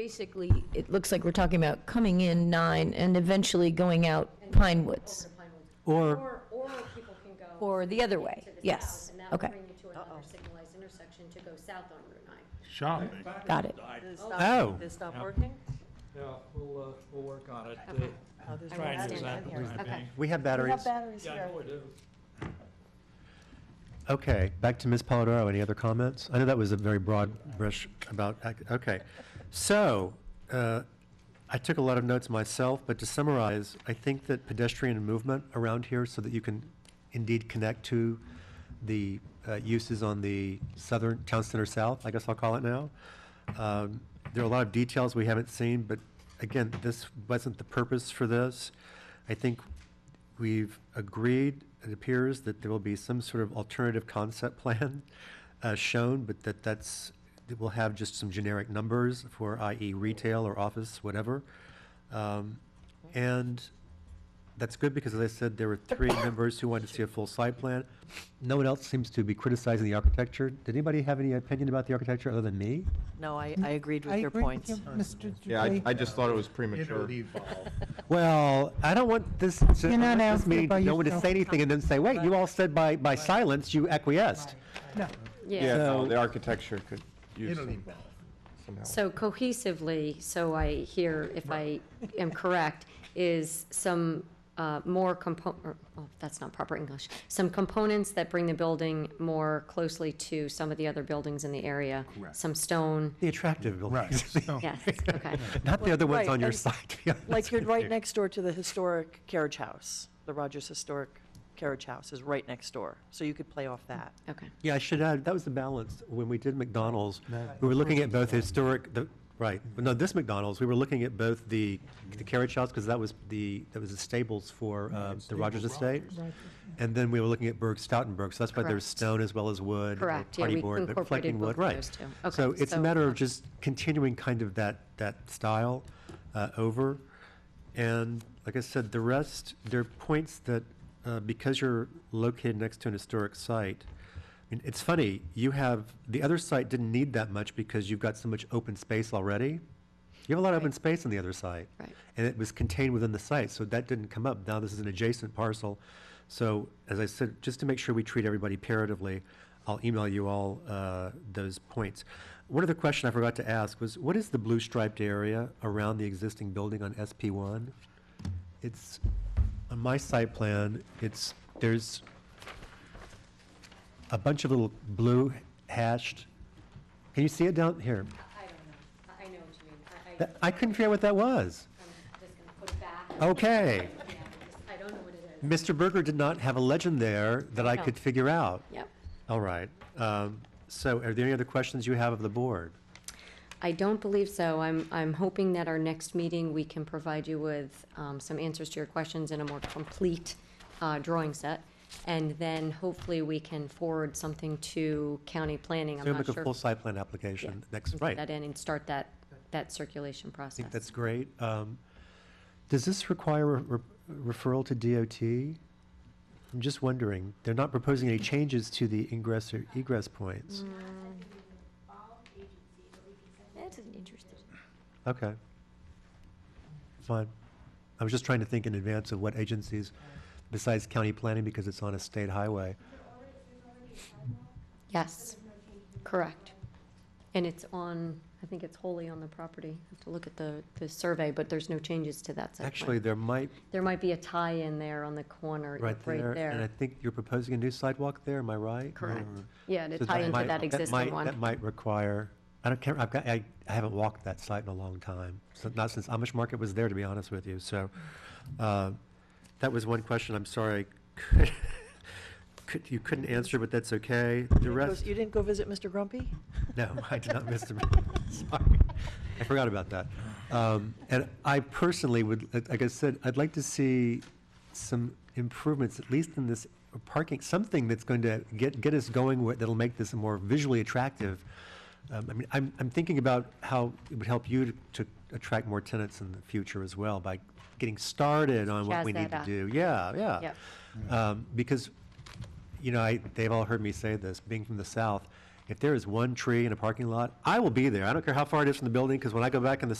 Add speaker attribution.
Speaker 1: basically, it looks like we're talking about coming in nine and eventually going out Pine Woods,
Speaker 2: Or,
Speaker 3: Or, or people can go
Speaker 1: or the other way,
Speaker 3: to the south,
Speaker 1: yes,
Speaker 3: and that will
Speaker 1: okay,
Speaker 3: bring you to another signalized intersection to go south on Route 9.
Speaker 4: Shopping.
Speaker 1: got it.
Speaker 5: This
Speaker 2: Oh.
Speaker 5: stop, this stop working?
Speaker 6: Yeah, we'll, uh, we'll work on it. Uh,
Speaker 5: Oh, this
Speaker 4: Trying to
Speaker 5: one's
Speaker 4: do
Speaker 5: not.
Speaker 4: that, but
Speaker 3: Okay.
Speaker 2: we have batteries.
Speaker 6: Yeah, I know we do.
Speaker 2: Okay, back to Ms. Polidoro, any other comments? I know that was a very broad brush about, ac- okay. So, uh, I took a lot of notes myself, but to summarize, I think that pedestrian movement around here so that you can indeed connect to the uh, uses on the southern, town center south, I guess I'll call it now. Um, There are a lot of details we haven't seen, but again, this wasn't the purpose for this. I think we've agreed, it appears, that there will be some sort of alternative concept plan uh, shown, but that that's, that we'll have just some generic numbers for i.e. retail or office, whatever. Um, And that's good because as I said, there were three members who wanted to see a full site plan. No one else seems to be criticizing the architecture. Did anybody have any opinion about the architecture other than me?
Speaker 5: No, I, I agreed
Speaker 7: I
Speaker 5: with your
Speaker 7: agree
Speaker 5: points.
Speaker 7: you, Mr.
Speaker 8: Yeah, I,
Speaker 7: Dupree.
Speaker 8: I just thought it was premature.
Speaker 4: It'll evolve.
Speaker 2: Well, I don't want this, to- I
Speaker 7: You're
Speaker 2: want
Speaker 7: not
Speaker 2: this
Speaker 7: asking
Speaker 2: meeting to
Speaker 7: by
Speaker 2: no one to
Speaker 7: yourself.
Speaker 2: say anything and then say, wait, you all said by, by silence, you acquiesced.
Speaker 7: No,
Speaker 8: Yeah, no,
Speaker 2: So-
Speaker 8: the architecture could use
Speaker 4: It'll
Speaker 8: some,
Speaker 4: evolve.
Speaker 8: some help.
Speaker 3: So cohesively, so I hear, if I am correct, is some uh, more compo, or, oh, that's not proper English, some components that bring the building more closely to some of the other buildings in the area.
Speaker 4: Correct.
Speaker 3: Some stone,
Speaker 2: The attractive buildings.
Speaker 4: So-
Speaker 3: yes, okay.
Speaker 2: Not the other ones
Speaker 5: Right,
Speaker 2: on your
Speaker 5: and-
Speaker 2: side, to be honest
Speaker 5: Like, you're
Speaker 2: with
Speaker 5: right
Speaker 2: you.
Speaker 5: next door to the historic carriage house. The Rogers Historic Carriage House is right next door, so you could play off that.
Speaker 3: Okay.
Speaker 2: Yeah, I should add, that was the balance. When we did McDonald's, we were looking at both historic, the, right, no, this McDonald's, we were looking at both the, the carriage house, because that was the, that was the stables for, uh, the Rogers Estate. And then we were looking at Berg Stoutenburg, so that's why there's
Speaker 3: Correct.
Speaker 2: stone as well as wood. or
Speaker 3: Correct, yeah,
Speaker 2: party
Speaker 3: we
Speaker 2: board, but
Speaker 3: incorporated
Speaker 2: reflecting
Speaker 3: both
Speaker 2: wood,
Speaker 3: of
Speaker 2: right.
Speaker 3: those two. Okay,
Speaker 2: So it's a
Speaker 3: so-
Speaker 2: matter of just continuing kind of that, that style, uh, over. And like I said, the rest, there are points that, uh, because you're located next to an historic site, I mean, it's funny, you have, the other site didn't need that much because you've got so much open space already. You have a lot of open space on the other site.
Speaker 3: Right.
Speaker 2: And it was contained within the site, so that didn't come up. Now this is an adjacent parcel. So as I said, just to make sure we treat everybody paratively, I'll email you all uh, those points. One other question I forgot to ask was, what is the blue striped area around the existing building on SP one? It's, on my site plan, it's, there's a bunch of little blue hashed, can you see it down here?
Speaker 3: I don't know, I know what you mean, I, I,
Speaker 2: That- Uh, I couldn't figure out what that was.
Speaker 3: I'm just gonna put it back.
Speaker 2: Okay.
Speaker 3: Yeah, I don't know what it is.
Speaker 2: Mr. Berger did not have a legend there that I
Speaker 3: No.
Speaker 2: could figure out.
Speaker 3: Yep.
Speaker 2: All right. Um, So are there any other questions you have of the board?
Speaker 3: I don't believe so. I'm, I'm hoping that our next meeting, we can provide you with um, some answers to your questions in a more complete uh, drawing set. And then hopefully we can forward something to county planning.
Speaker 2: So
Speaker 3: I'm
Speaker 2: make
Speaker 3: not
Speaker 2: a
Speaker 3: sure.
Speaker 2: full site plan application next,
Speaker 3: Put
Speaker 2: right.
Speaker 3: That in and start that, that circulation
Speaker 2: I think
Speaker 3: process.
Speaker 2: that's great. Um, Does this require a re- referral to DOT? I'm just wondering. They're not proposing any changes to the ingress or egress points.
Speaker 1: That's an interesting.
Speaker 2: Okay. Fine. I was just trying to think in advance of what agencies, besides county planning, because it's on a state highway.
Speaker 3: Yes, correct. And it's on, I think it's wholly on the property. I have to look at the, the survey, but there's no changes to that site
Speaker 2: Actually,
Speaker 3: plan.
Speaker 2: there might,
Speaker 3: There might be a tie-in there on the corner,
Speaker 2: right
Speaker 3: right
Speaker 2: there, and I
Speaker 3: there.
Speaker 2: think you're proposing a new sidewalk there, am I right?
Speaker 3: Correct.
Speaker 2: Mm.
Speaker 3: Yeah, to
Speaker 2: So
Speaker 3: tie into
Speaker 2: might-
Speaker 3: that existing
Speaker 2: might-
Speaker 3: one.
Speaker 2: That might require, I don't care, I've got, I, I haven't walked that site in a long time, so not since Amish Market was there, to be honest with you, so, uh, that was one question, I'm sorry, I could- could, you couldn't answer, but that's okay, the
Speaker 5: You didn't go-
Speaker 2: rest.
Speaker 5: You didn't go visit Mr. Grumpy?
Speaker 2: No, I did not miss the meeting. Sorry. I forgot about that. Um, And I personally would, like- like I said, I'd like to see some improvements, at least in this parking, something that's going to get, get us going, where- that'll make this more visually attractive. Um, I mean, I'm, I'm thinking about how it would help you to to attract more tenants in the future as well by getting started on what
Speaker 3: Jazz
Speaker 2: we
Speaker 3: that
Speaker 2: need to
Speaker 3: up.
Speaker 2: do. Yeah, yeah.
Speaker 3: Yep.
Speaker 2: Um, Because you know, I, they've all heard me say this, being from the South, if there is one tree in a parking lot, I will be there. I don't care how far it is from the building, because when I go back in the